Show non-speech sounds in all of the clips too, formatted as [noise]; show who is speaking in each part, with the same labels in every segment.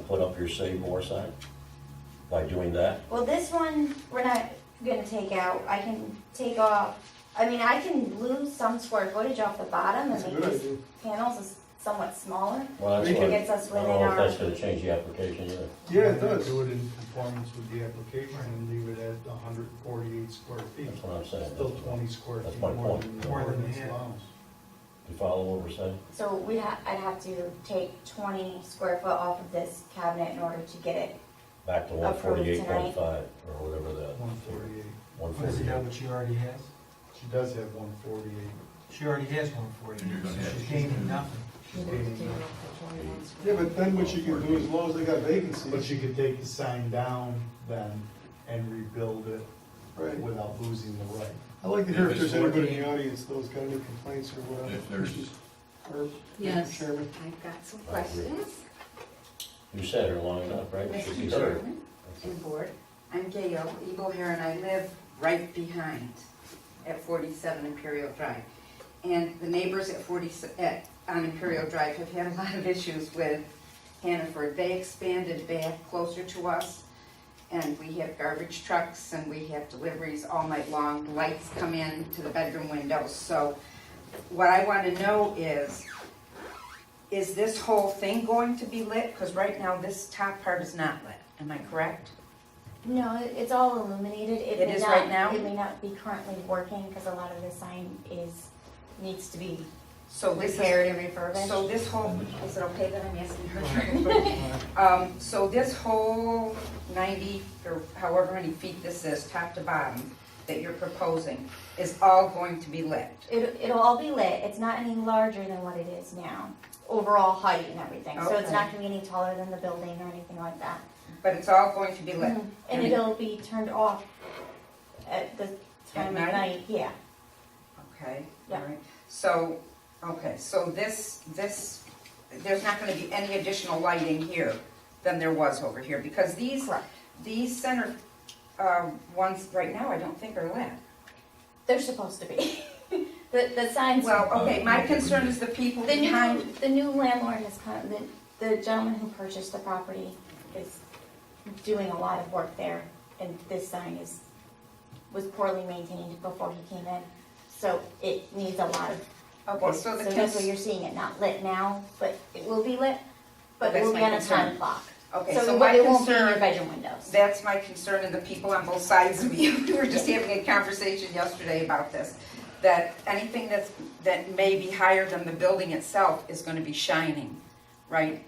Speaker 1: put up your Save More sign by doing that?
Speaker 2: Well, this one, we're not gonna take out, I can take off, I mean, I can lose some square footage off the bottom and
Speaker 3: That's a
Speaker 2: make
Speaker 3: good
Speaker 2: these
Speaker 3: idea.
Speaker 2: panels is somewhat smaller.
Speaker 1: Well, that's
Speaker 3: We
Speaker 2: It
Speaker 3: can-
Speaker 1: what, I
Speaker 2: gets us
Speaker 1: don't
Speaker 2: within
Speaker 1: know if
Speaker 2: our,
Speaker 1: that's gonna change the application either.
Speaker 3: Yeah, it does.
Speaker 4: Do it in conformance with the application and leave it at hundred and forty-eight square feet.
Speaker 1: That's what I'm saying.
Speaker 4: Still twenty square
Speaker 1: That's
Speaker 4: feet
Speaker 1: my
Speaker 4: more
Speaker 1: point.
Speaker 4: than the
Speaker 3: More than
Speaker 4: ordinance
Speaker 3: half.
Speaker 4: allows.
Speaker 1: You follow what we're saying?
Speaker 2: so we ha, I'd have to take twenty square foot off of this cabinet in order to get it.
Speaker 1: Back to one
Speaker 2: Approved
Speaker 1: forty-eight point
Speaker 2: tonight.
Speaker 1: five, or whatever that.
Speaker 4: One forty-eight.
Speaker 1: One
Speaker 5: What does it have,
Speaker 1: forty-eight.
Speaker 5: what she already has?
Speaker 4: She does have one forty-eight.
Speaker 5: She already has one for you, so she's gaining nothing.
Speaker 3: Yeah, but then what you can do, as long as they got
Speaker 4: But
Speaker 3: vacancies,
Speaker 4: she could take the sign down then and rebuild it
Speaker 3: right?
Speaker 4: without losing the right.
Speaker 3: I'd like to hear if
Speaker 6: If
Speaker 3: there's
Speaker 6: it's
Speaker 3: anybody in
Speaker 6: working.
Speaker 3: the audience that has got any complaints or whatever.
Speaker 6: If there's-
Speaker 3: Herb, Mr.
Speaker 7: Yes.
Speaker 3: Chairman.
Speaker 7: I've got some
Speaker 1: I agree.
Speaker 7: questions,
Speaker 1: You said her long enough, right? Should be
Speaker 7: Mr.
Speaker 1: heard.
Speaker 7: Chairman and Board. I'm Gail Eagle here, and I live right behind at 47 Imperial Drive. And the neighbors at 40, at, on Imperial Drive have had a lot of issues with Hannaford. They expanded back closer to us, and we have garbage trucks, and we have deliveries all night long. Lights come in to the bedroom windows, so what I want to know is, is this whole thing going to be lit? Because right now, this top part is not lit, am I correct?
Speaker 2: No, it- it's all illuminated, it
Speaker 7: It
Speaker 2: may
Speaker 7: is
Speaker 2: not-
Speaker 7: right now?
Speaker 2: It may not be currently working, cause a lot of the sign is, needs to be
Speaker 7: So this
Speaker 2: repaired
Speaker 7: is,
Speaker 2: and refurbished.
Speaker 7: so this whole, is it okay that I'm asking her? [laughs] Um, so this whole ninety, or however many feet this is, top to bottom, that you're proposing, is all going to be lit?
Speaker 2: It, it'll all be lit, it's not any larger than what it is now, overall height and everything, so it's not gonna be any taller than the building or anything like that.
Speaker 7: But it's all going to be lit?
Speaker 2: And it'll be turned off at the time of
Speaker 7: At night?
Speaker 2: night, yeah.
Speaker 7: Okay,
Speaker 2: Yeah.
Speaker 7: alright, so, okay, so this, this, there's not gonna be any additional lighting here than there was over here, because these,
Speaker 2: Correct.
Speaker 7: these center, um, ones right now, I don't think are lit.
Speaker 2: They're supposed to be. [laughs] The, the signs,
Speaker 7: Well, okay, my concern is the people
Speaker 2: the new,
Speaker 7: behind,
Speaker 2: the new landlord has come, the, the gentleman who purchased the property is doing a lot of work there, and this sign is, was poorly maintained before he came in, so it needs a lot of
Speaker 7: okay, so the,
Speaker 2: that's why
Speaker 7: cons-
Speaker 2: you're seeing it not lit now, but it will be lit, but it
Speaker 7: That's
Speaker 2: will be
Speaker 7: my
Speaker 2: on a time
Speaker 7: concern.
Speaker 2: clock.
Speaker 7: okay,
Speaker 2: So
Speaker 7: so
Speaker 2: it
Speaker 7: my
Speaker 2: won't- it won't be in your
Speaker 7: concern,
Speaker 2: bedroom windows.
Speaker 7: that's my concern and the people on both sides of you, we were just having a conversation yesterday about this. That anything that's, that may be higher than the building itself is gonna be shining, right?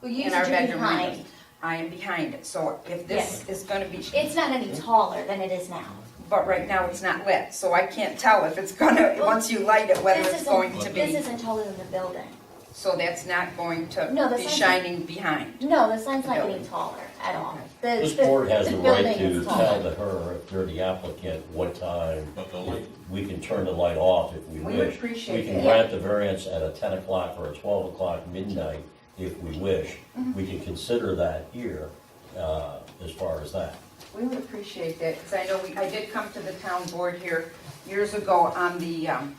Speaker 2: Well,
Speaker 7: In our bedroom windows. I am behind it, so if this
Speaker 2: Yes.
Speaker 7: is gonna be,
Speaker 2: It's not any
Speaker 7: Mm-hmm.
Speaker 2: taller than it is now.
Speaker 7: but right now it's not lit, so I can't tell if it's gonna,
Speaker 2: Well,
Speaker 7: once you light it, whether
Speaker 2: This
Speaker 7: it's
Speaker 2: isn't-
Speaker 7: going to be.
Speaker 2: This isn't taller than the building.
Speaker 7: So that's not going
Speaker 2: No,
Speaker 7: to
Speaker 2: the
Speaker 7: be
Speaker 2: sign's-
Speaker 7: shining behind.
Speaker 2: No, the sign's not getting taller at all. The-
Speaker 1: This
Speaker 2: the-
Speaker 1: board has
Speaker 2: the
Speaker 1: the right
Speaker 2: building
Speaker 1: to
Speaker 2: is
Speaker 1: tell
Speaker 2: taller.
Speaker 1: to her, if you're the applicant, what time.
Speaker 6: But the light,
Speaker 1: We can turn the light off if we
Speaker 7: We
Speaker 1: wish.
Speaker 7: would appreciate
Speaker 1: We can
Speaker 7: that.
Speaker 1: grant the variance at a ten o'clock or a twelve o'clock midnight if we wish.
Speaker 7: Mm-hmm.
Speaker 1: We can consider that here, uh, as far as that.
Speaker 7: We would appreciate that, because I know, we I did come to the town board here years ago on the, um,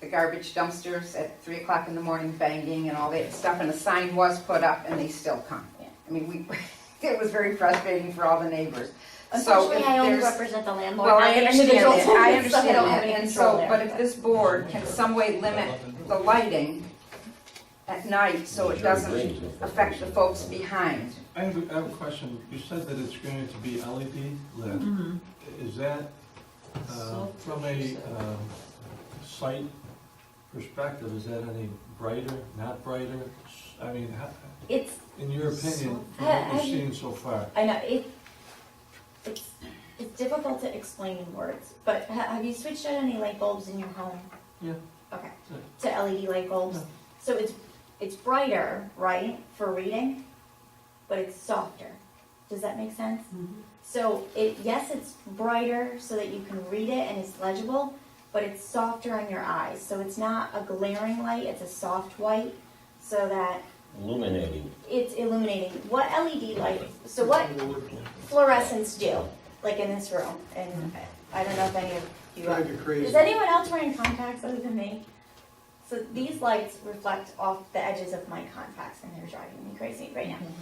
Speaker 7: the garbage dumpsters at three o'clock in the morning banging and all that stuff, and a sign was put up, and they still come.
Speaker 2: Yeah.
Speaker 7: I mean, we, [laughs] it was very frustrating for all the neighbors. So
Speaker 2: Unfortunately,
Speaker 7: if
Speaker 2: I only
Speaker 7: there's-
Speaker 2: represent the landlord,
Speaker 7: Well,
Speaker 2: not
Speaker 7: I
Speaker 2: the
Speaker 7: understand
Speaker 2: individual
Speaker 7: that, I
Speaker 2: tenants, [laughs] so
Speaker 7: understand
Speaker 2: don't have
Speaker 7: that,
Speaker 2: any
Speaker 7: and
Speaker 2: control
Speaker 7: so,
Speaker 2: there.
Speaker 7: but if this board can some way limit the lighting at night, so it doesn't affect the folks behind.
Speaker 8: I have, a- I have a question. You said that it's going to be LED lit. Is that uh, from a um, site perspective, is that any brighter, not brighter? S- I mean, ho-
Speaker 2: It's,
Speaker 8: in your opinion, from
Speaker 2: I-
Speaker 8: what
Speaker 2: I-
Speaker 8: you've seen so far?
Speaker 2: I know, it, it's, it's difficult to explain in words, but ha- have you switched out any light bulbs in your home?
Speaker 8: Yeah.
Speaker 2: Okay, to LED light bulbs,
Speaker 8: Yeah.
Speaker 2: so it's, it's brighter, right, for reading, but it's softer, does that make sense?
Speaker 8: Mm-hmm.
Speaker 2: So it, yes, it's brighter so that you can read it and it's legible, but it's softer on your eyes, so it's not a glaring light, it's a soft white, so that
Speaker 1: Illuminating,
Speaker 2: it's illuminating. What LED light, so what fluorescents do, like in this room, and I don't know if any of you
Speaker 3: Drive you crazy.
Speaker 2: Is anyone else wearing contacts other than me? So these lights reflect off the edges of my contacts, and they're driving me crazy right now.